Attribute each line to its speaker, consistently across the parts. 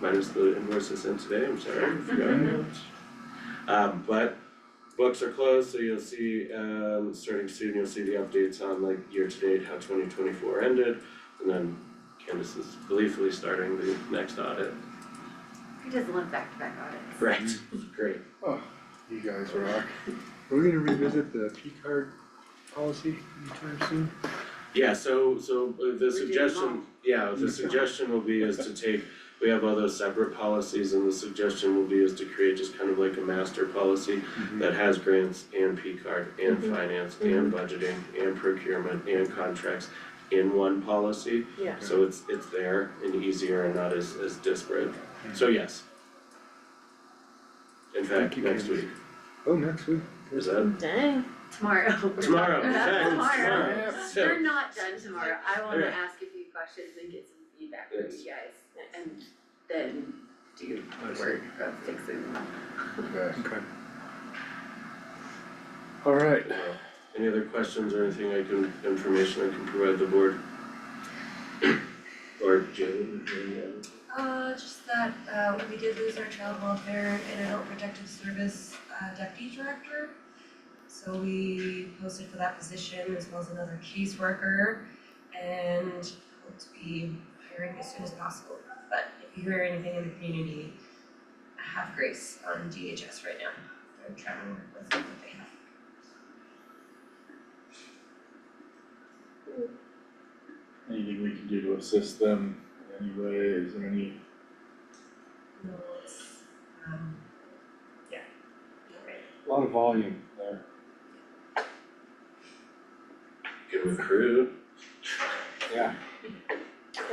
Speaker 1: minus the invoices in today, I'm sorry, I forgot about that. Um, but books are closed, so you'll see, um, starting soon, you'll see the updates on like year to date, how twenty twenty four ended. And then Candace is gleefully starting the next audit.
Speaker 2: He does love back-to-back audits.
Speaker 1: Right. Great.
Speaker 3: You guys rock. Are we gonna revisit the P card policy anytime soon?
Speaker 1: Yeah, so so uh, the suggestion,
Speaker 2: wrong.
Speaker 1: yeah, the suggestion will be is to take, we have all those separate policies and the suggestion will be is to create just kind of like a master policy
Speaker 4: Mm-hmm.
Speaker 1: that has grants and P card and
Speaker 5: Mm-hmm.
Speaker 1: finance and budgeting and procurement and contracts in one policy.
Speaker 5: Yeah.
Speaker 1: So it's it's there and easier and not as as disparate,
Speaker 3: Mm-hmm.
Speaker 1: so yes. In fact,
Speaker 3: Thank you,
Speaker 1: next
Speaker 3: Candace.
Speaker 1: week,
Speaker 3: Oh, next week.
Speaker 1: is that
Speaker 5: Dang.
Speaker 2: Tomorrow. We're
Speaker 1: tomorrow,
Speaker 2: talking
Speaker 1: in
Speaker 2: about
Speaker 1: fact, it's
Speaker 2: Tomorrow.
Speaker 1: tomorrow,
Speaker 3: Yeah.
Speaker 1: so-
Speaker 2: We're not done tomorrow. I wanna
Speaker 1: Okay.
Speaker 2: ask a few questions and get some feedback from
Speaker 1: Yes.
Speaker 2: you guys and then do
Speaker 3: I
Speaker 2: the work of fixing them.
Speaker 3: Okay. Alright,
Speaker 1: Any other questions or anything I can, information I can provide the board? Or Jane, any other?
Speaker 6: Uh, just that, uh, we did lose our child welfare and adult protective service, uh, deputy director. So we posted for that position as well as another caseworker and hope to be hiring as soon as possible. But if you hear anything in the community, have grace on DHS right now. They're trying to work with what they have.
Speaker 4: anything we can do to assist them in any way, is there any,
Speaker 6: No, it's, um, yeah. Okay.
Speaker 4: a lot of volume there.
Speaker 1: Can recruit,
Speaker 4: Yeah.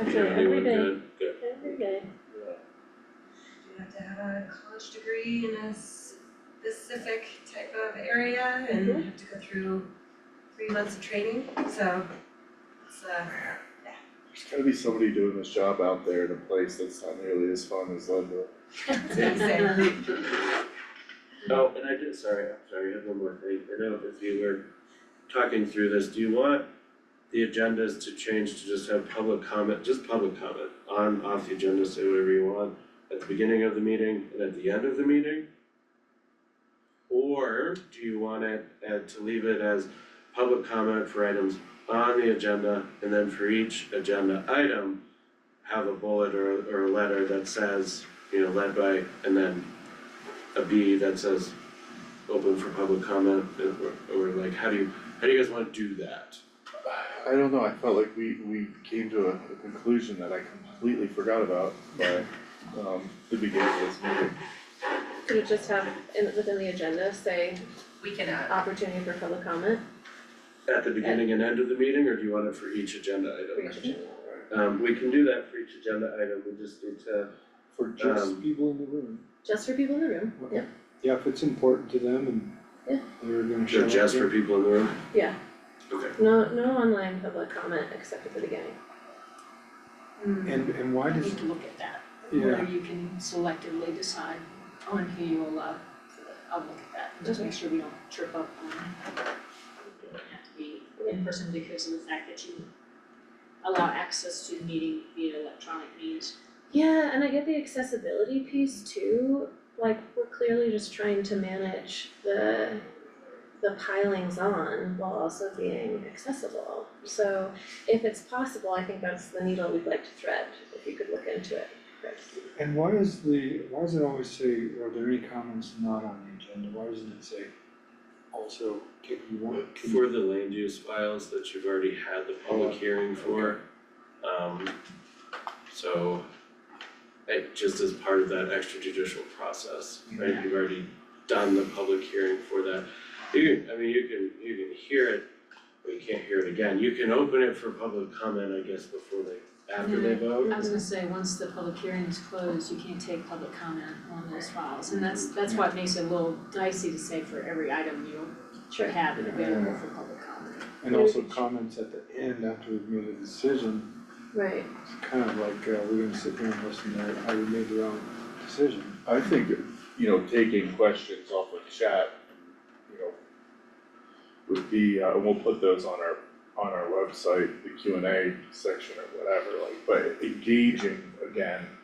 Speaker 5: That's
Speaker 1: you
Speaker 5: right,
Speaker 1: know,
Speaker 5: every
Speaker 1: anyone
Speaker 5: day,
Speaker 1: good, good.
Speaker 5: every day.
Speaker 6: You have to uh, have a college degree in a specific type of area and have to go through three months of training, so it's uh
Speaker 4: There's gotta be somebody doing this job out there in a place that's not nearly as fun as Leadville.
Speaker 6: it's insane.
Speaker 1: Oh, and I did, sorry, I'm sorry, I have one more thing, I know if you were talking through this, do you want the agendas to change to just have public comment, just public comment, on, off the agenda, say whatever you want, at the beginning of the meeting and at the end of the meeting? Or do you want it, uh, to leave it as public comment for items on the agenda, and then for each agenda item, have a bullet or, or a letter that says, you know, led by, and then a B that says open for public comment, or, or like, how do you, how do you guys wanna do that?
Speaker 4: I don't know, I felt like we, we came to a a conclusion that I completely forgot about by, um, the beginning of this meeting.
Speaker 5: Could it just have, in, within the agenda, say,
Speaker 6: We can uh
Speaker 5: opportunity for public comment
Speaker 1: At the beginning and end of the meeting, or do you want it for each agenda
Speaker 5: for
Speaker 1: item?
Speaker 5: each agenda?
Speaker 1: Um, we can do that for each agenda item, we just need to,
Speaker 3: for just
Speaker 1: Um,
Speaker 3: people in the room.
Speaker 5: Just for people in the room,
Speaker 3: Okay.
Speaker 5: yeah,
Speaker 3: Yeah, if it's important to them and
Speaker 5: Yeah.
Speaker 3: they're gonna show
Speaker 1: so
Speaker 3: up
Speaker 1: just
Speaker 3: there.
Speaker 1: for people in the room?
Speaker 5: Yeah.
Speaker 1: Okay.
Speaker 5: no, no online public comment except at the beginning.
Speaker 3: And and why
Speaker 7: We
Speaker 3: does,
Speaker 7: need to look at that,
Speaker 3: yeah,
Speaker 7: whether you can selectively decide on who you allow for the, I'll look at that, and just make sure we don't trip up on it doesn't have to be in person because of the fact that you allow access to the meeting via electronic means.
Speaker 5: Yeah, and I get the accessibility piece too, like, we're clearly just trying to manage the, the pilings on while also being accessible. So if it's possible, I think that's the needle we'd like to thread, if you could look into it, Chris.
Speaker 3: and why is the, why does it always say, are there any comments not on the agenda? Why doesn't it say also, if you want, can
Speaker 1: For the land use files that you've already had the public hearing for, um, so it just as part of that extrajudicial process, right, you've already done the public hearing for that. You can, I mean, you can, you can hear it, but you can't hear it again, you can open it for public comment, I guess, before they, after they vote.
Speaker 7: I was gonna say, once the public hearing is closed, you can't take public comment on those files, and that's, that's what makes it a little dicey to say for every item you
Speaker 5: Sure.
Speaker 7: have it available for public comment.
Speaker 3: And also comments at the end after we've made a decision,
Speaker 5: Right,
Speaker 3: it's kind of like, uh, we're gonna sit here and listen to how we made the wrong decision.
Speaker 4: I think, you know, taking questions off of chat, you know, would be, uh, and we'll put those on our, on our website, the Q and A section or whatever, like, but engaging again